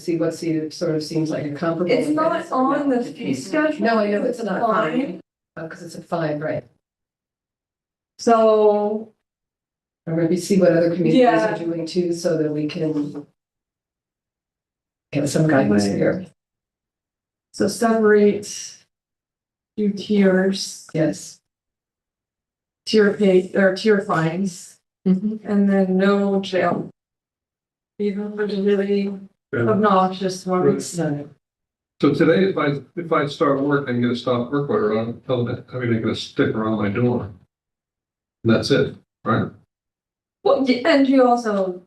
see what see, sort of seems like a comparable. It's not on the fee schedule. No, I know, it's not. Fine. Because it's a fine, right? So, Or maybe see what other communities Yeah. are doing too, so that we can get some guidance Right. here. so separate. Do tiers, Yes. tier pay, or tier fines, Mm-hmm. and then no jail. Even for the really Yeah. obnoxious ones. No. So today, if I, if I start work and get a stop work order on, tell them, I mean, they get a sticker on my door. And that's it, right? Well, y- and you also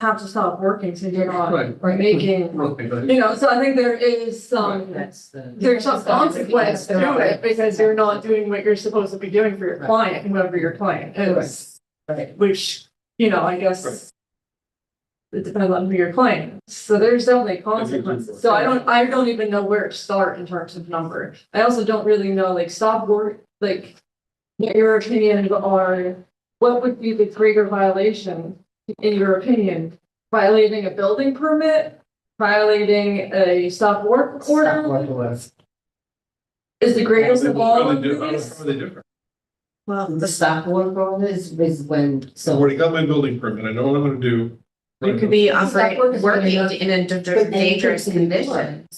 have to stop working, so you're not Right. making, Okay, right. you know, so I think there is some. That's the. There's some consequence to it, because you're not doing what you're supposed to be doing for your Right. client, whoever your client is. Right, which, you know, I Right. guess. It depends on who you're playing, so there's definitely consequences, so I don't, I don't even know where to start in terms of number. I also don't really know, like, stop work, like, what your opinion on, what would be the greater violation, in your opinion? Violating a building permit, violating a stop work Stop order, what it was. is the greatest of all How of they do- how they- how these? they uh, different? Well, the stop work order is, is when, I've so already got my building permit, I know what I'm gonna do. You could be Stop work operating, is working really- in a But danger- then you dangerous can do it. condition.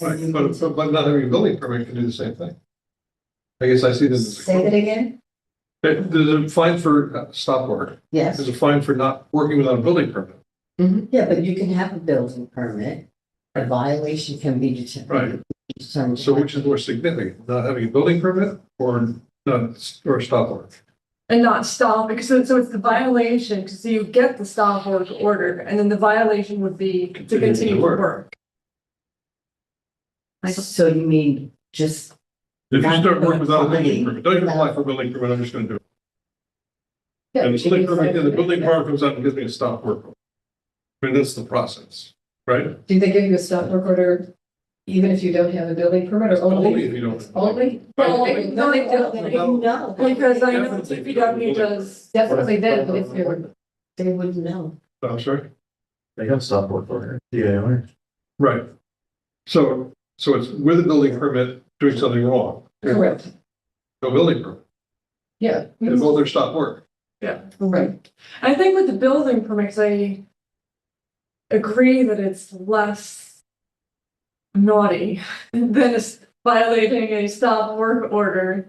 Right, But, but- but not every building permit can do the same thing. I guess I see this as. say that again? There- There's a fine for uh, stop work, there's Yes, a fine for not working without a building permit. Mm-hmm. yeah, but you can have a building permit. A violation can be Right. determined. determined. So which is more significant, not having a building permit or not, or stop work? And not stop, because so, so it's the violation, because you get the stop work order, and then the violation would be to Continue to continue to work. work. So you mean just, If you Not start working without a building applying. permit, don't even apply for a building permit, I'm just gonna do it. And the building permit, then the building department comes out and gives me a stop work. order. I mean, that's the process, right? Do they give you a stop work order even if you don't have a building permit or Only only? if you don't. Only? No, Right. they- no, they don't, no, because I know DPW does, Definitely then, if you're, they wouldn't know. I'm sorry, They have stop work order, yeah. right. So, so it's with a building permit, doing something wrong, correct, no building permit, yeah, and both are stop work. right. I think with the building permits, I agree that it's less naughty than s- violating a stop work order.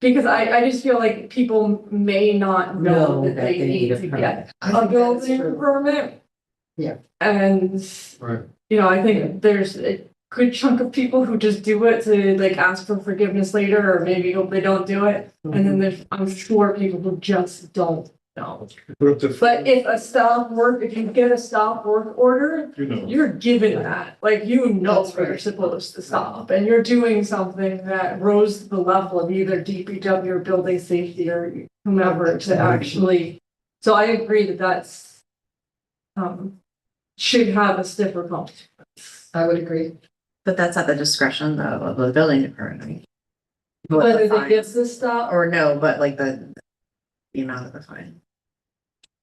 Because I, I just feel like people may not know Know that they need to permit. get I a think that's building true. permit. Yeah. And, Right. you know, I think there's a good chunk of people who just do it to like ask for forgiveness later, or maybe hope they don't do it. And Mm-hmm. then there's, I'm sure people who just don't know. Put up to- But if a stop work, if you get a stop work order, You know, you're given that, like, you know That's where you're right. supposed to stop, and you're doing something that rose to the level of either DPW or building safety or whomever to actually. So I agree that that's, um, should have a stiffer penalty. I would agree. But that's at the discretion though of the building department. What the Whether they fine- get the stop Or no, but like the, the amount of the fine.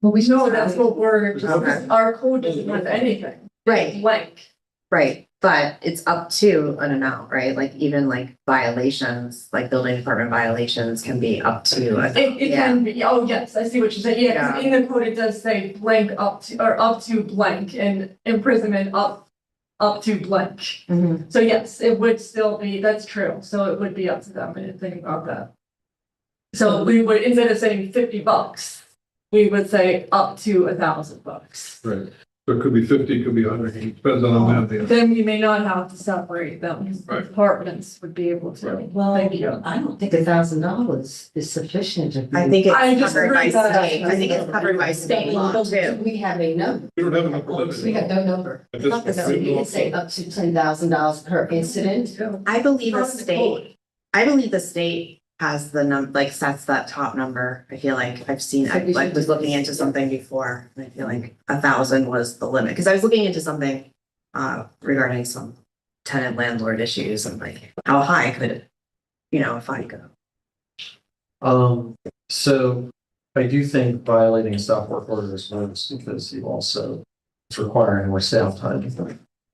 Well, or, no, that's what we're, Okay. just our code doesn't have anything. Right. Like, Right, but it's up to an amount, right? Like even like violations, like building department violations can be up to. a- It, it Yeah. can be, oh, yes, I see what you're saying, yeah, 'cause in the code, it does say blank up to, or up to blank and imprisonment up, up to blank. Mhm. So yes, it would still be, that's true, so it would be up to them, I didn't think about that. So we would, instead of saying fifty bucks, we would say up to a thousand bucks. right, so it could be fifty, it could be hundred, it depends on how bad they are. Then we may not have to separate them, 'cause Right. departments would be able to. Well, Thank you. I don't think a thousand dollars is sufficient. to be- I think it's I just covered by agree that- state, I think it's covered by state law Do too. We have a number, We don't have enough limit. we have no number. At this Not the point, So we you don't- could say up to ten thousand dollars per incident. I believe the From the state I believe the state has the num, like sets that top number. I feel like I've seen, So I we like should was do looking this. into something before. and I feel like a thousand was the limit, because I was looking into something uh regarding some tenant landlord issues and like how high could, you know, if I go. Um, so I do think violating a stop work order is notice because you also, it's requiring more staff time.